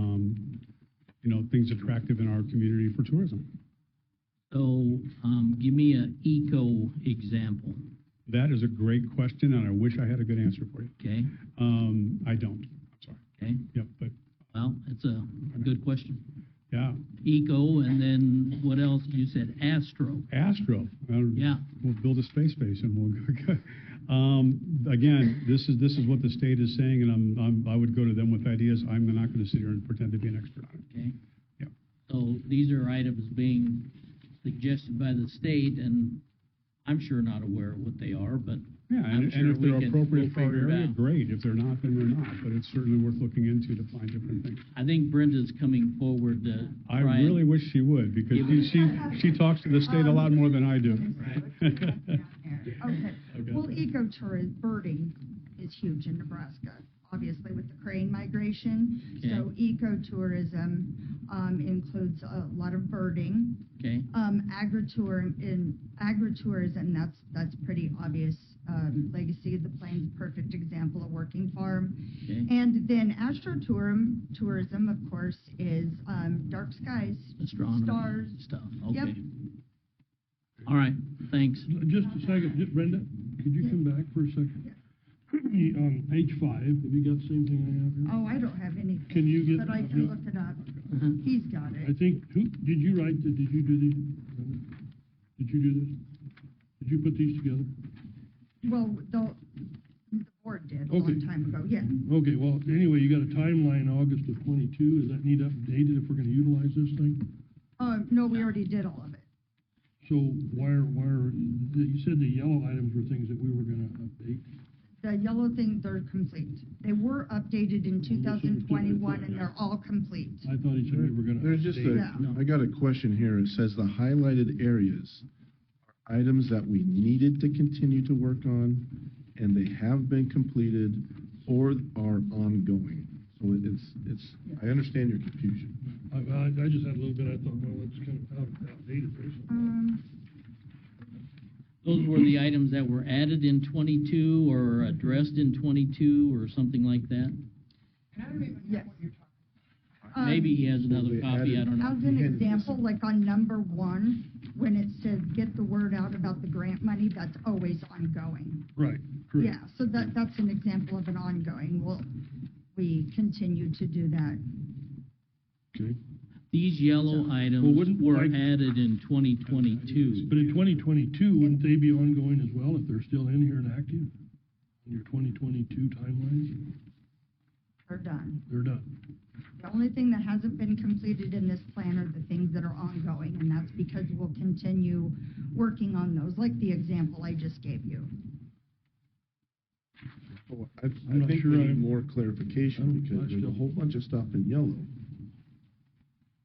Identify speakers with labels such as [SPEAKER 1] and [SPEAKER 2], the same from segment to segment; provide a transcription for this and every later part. [SPEAKER 1] um, you know, things attractive in our community for tourism.
[SPEAKER 2] So, um, give me an eco example,
[SPEAKER 1] That is a great question, and I wish I had a good answer for you.
[SPEAKER 2] okay?
[SPEAKER 1] Um, I don't, I'm sorry.
[SPEAKER 2] Okay,
[SPEAKER 1] Yep, but,
[SPEAKER 2] well, it's a good question.
[SPEAKER 1] yeah,
[SPEAKER 2] Eco, and then what else? You said astro.
[SPEAKER 1] Astro. Well,
[SPEAKER 2] Yeah.
[SPEAKER 1] We'll build a space base and we'll go. Um, again, this is, this is what the state is saying, and I'm, I'm, I would go to them with ideas. I'm not gonna sit here and pretend to be an expert on it.
[SPEAKER 2] Okay.
[SPEAKER 1] Yep.
[SPEAKER 2] So these are items being suggested by the state, and I'm sure not aware of what they are, but
[SPEAKER 1] Yeah,
[SPEAKER 2] I'm
[SPEAKER 1] and,
[SPEAKER 2] sure
[SPEAKER 1] and if
[SPEAKER 2] we
[SPEAKER 1] they're
[SPEAKER 2] can-
[SPEAKER 1] appropriate
[SPEAKER 2] we'll
[SPEAKER 1] for our
[SPEAKER 2] figure it
[SPEAKER 1] area,
[SPEAKER 2] out.
[SPEAKER 1] great. If they're not, then they're not, but it's certainly worth looking into to find different things.
[SPEAKER 2] I think Brenda's coming forward to
[SPEAKER 1] I
[SPEAKER 2] try and-
[SPEAKER 1] really wish she would, because
[SPEAKER 2] Give
[SPEAKER 1] you- she, she talks to the state a
[SPEAKER 3] Um,
[SPEAKER 1] lot more than I do.
[SPEAKER 3] Okay,
[SPEAKER 1] Okay.
[SPEAKER 3] well, ecotourism, birding is huge in Nebraska, obviously with the crane migration. So ecotourism um, includes a lot of birding.
[SPEAKER 2] Okay,
[SPEAKER 3] Um, Agritourism, in agritourism, that's, that's pretty obvious. Um, Legacy of the Plains, perfect example of working farm.
[SPEAKER 2] okay.
[SPEAKER 3] And then astrotourism, tourism, of course, is um, dark skies.
[SPEAKER 2] Astronomy
[SPEAKER 3] Stars.
[SPEAKER 2] stuff,
[SPEAKER 3] Yep.
[SPEAKER 2] okay. All right, thanks.
[SPEAKER 4] Just a second, Ju- Brenda, could you come back for a second? On page five, have you got the same thing I have here?
[SPEAKER 3] Oh, I don't have anything.
[SPEAKER 4] Can you get-
[SPEAKER 3] But I can look it up.
[SPEAKER 2] Uh-huh.
[SPEAKER 3] He's got it.
[SPEAKER 4] I think, who, did you write, the- did you do these? Brenda? Did you do this? Did you put these together?
[SPEAKER 3] Well, the, the board did a long
[SPEAKER 4] Okay.
[SPEAKER 3] time ago, yeah.
[SPEAKER 4] Okay, well, anyway, you got a timeline, August of twenty-two, does that need updated if we're gonna utilize this thing?
[SPEAKER 3] Um, no, we already did all of it.
[SPEAKER 4] So why are, why are, you said the yellow items were things that we were gonna update?
[SPEAKER 3] The yellow thing, they're complete. They were updated in two thousand twenty-one and they're all complete.
[SPEAKER 4] I thought he said we were gonna update.
[SPEAKER 5] There's just a,
[SPEAKER 3] Yeah.
[SPEAKER 5] I got a question here. It says the highlighted areas are items that we needed to continue to work on, and they have been completed or are ongoing. So it's, it's, I understand your confusion.
[SPEAKER 4] I, I- I just had a little bit, I thought, well, it's kind of out- outdated or something.
[SPEAKER 3] Um,
[SPEAKER 2] Those were the items that were added in twenty-two or addressed in twenty-two or something like that?
[SPEAKER 3] yes. Um,
[SPEAKER 2] Maybe he has another
[SPEAKER 5] they
[SPEAKER 2] copy, I don't
[SPEAKER 5] added-
[SPEAKER 2] know.
[SPEAKER 3] As an example, like on number one, when it says get the word out about the grant money, that's always ongoing.
[SPEAKER 4] Right,
[SPEAKER 3] Yeah,
[SPEAKER 4] correct.
[SPEAKER 3] so that, that's an example of an ongoing. Well, we continue to do that.
[SPEAKER 5] Okay.
[SPEAKER 2] These yellow
[SPEAKER 4] Well,
[SPEAKER 2] items
[SPEAKER 4] wouldn't
[SPEAKER 2] were
[SPEAKER 4] like-
[SPEAKER 2] added in twenty twenty-two.
[SPEAKER 4] But in twenty twenty-two, wouldn't they be ongoing as well if they're still in here and active? In your twenty twenty-two timelines,
[SPEAKER 3] We're done.
[SPEAKER 4] they're done.
[SPEAKER 3] The only thing that hasn't been completed in this plan are the things that are ongoing, and that's because we'll continue working on those, like the example I just gave you.
[SPEAKER 5] Oh, I,
[SPEAKER 4] I'm
[SPEAKER 5] I
[SPEAKER 4] not
[SPEAKER 5] think
[SPEAKER 4] sure
[SPEAKER 5] we need
[SPEAKER 4] I'm-
[SPEAKER 5] more
[SPEAKER 4] I don't-
[SPEAKER 5] clarification
[SPEAKER 4] I
[SPEAKER 5] because there's
[SPEAKER 4] still-
[SPEAKER 5] a whole bunch of stuff in yellow.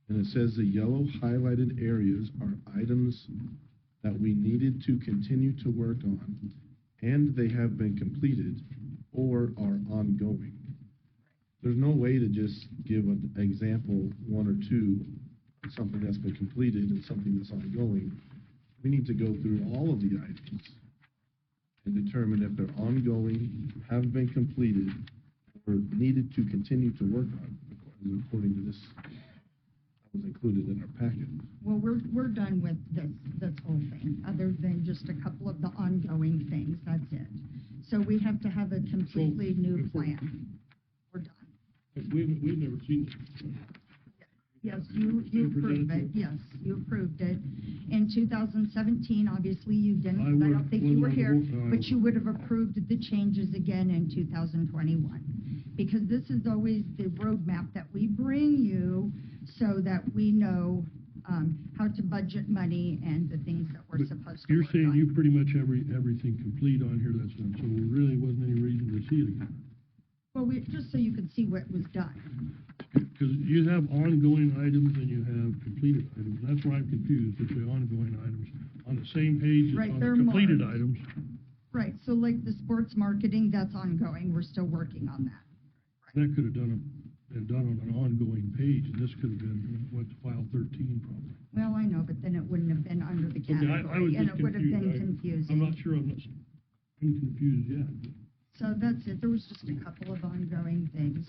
[SPEAKER 5] And it says the yellow highlighted areas are items that we needed to continue to work on and they have been completed or are ongoing. There's no way to just give an example, one or two, something that's been completed and something that's ongoing. We need to go through all of the items and determine if they're ongoing, have been completed, or needed to continue to work on, according- according to this, that was included in our packet.
[SPEAKER 3] Well, we're, we're done with this, this whole thing, other than just a couple of the ongoing things, that's it. So we have to have a completely new plan. We're done.
[SPEAKER 4] We've, we've never seen this.
[SPEAKER 3] Yes, you, you approved it, yes, you approved it. In 2017, obviously, you
[SPEAKER 4] I
[SPEAKER 3] didn't, 'cause I
[SPEAKER 4] would-
[SPEAKER 3] don't think you
[SPEAKER 4] would
[SPEAKER 3] were
[SPEAKER 4] not
[SPEAKER 3] here,
[SPEAKER 4] vote, no, I
[SPEAKER 3] but you
[SPEAKER 4] would.
[SPEAKER 3] would have approved the changes again in 2021. Because this is always the roadmap that we bring you so that we know um, how to budget money and the things that we're
[SPEAKER 4] But
[SPEAKER 3] supposed to
[SPEAKER 4] You're
[SPEAKER 3] work
[SPEAKER 4] saying
[SPEAKER 3] on.
[SPEAKER 4] you pretty much every, everything complete on here that's done, so there really wasn't any reason to see it again.
[SPEAKER 3] Well, we, just so you could see what was done.
[SPEAKER 4] Because you have ongoing items and you have completed items. That's why I'm confused with the ongoing items. On the same page
[SPEAKER 3] Right,
[SPEAKER 4] as on
[SPEAKER 3] they're
[SPEAKER 4] the completed
[SPEAKER 3] marked.
[SPEAKER 4] items.
[SPEAKER 3] Right, so like the sports marketing, that's ongoing, we're still working on that.
[SPEAKER 4] That could have done, a- been done on an ongoing page, and this could have been, what, file thirteen probably.
[SPEAKER 3] Well, I know, but then it wouldn't have been under the
[SPEAKER 4] Okay, I- I was
[SPEAKER 3] category, and
[SPEAKER 4] just
[SPEAKER 3] it would have been
[SPEAKER 4] confused. I- I'm not
[SPEAKER 3] confusing.
[SPEAKER 4] sure, I'm not, s- I'm confused yet.
[SPEAKER 3] So that's it, there was just a couple of ongoing things.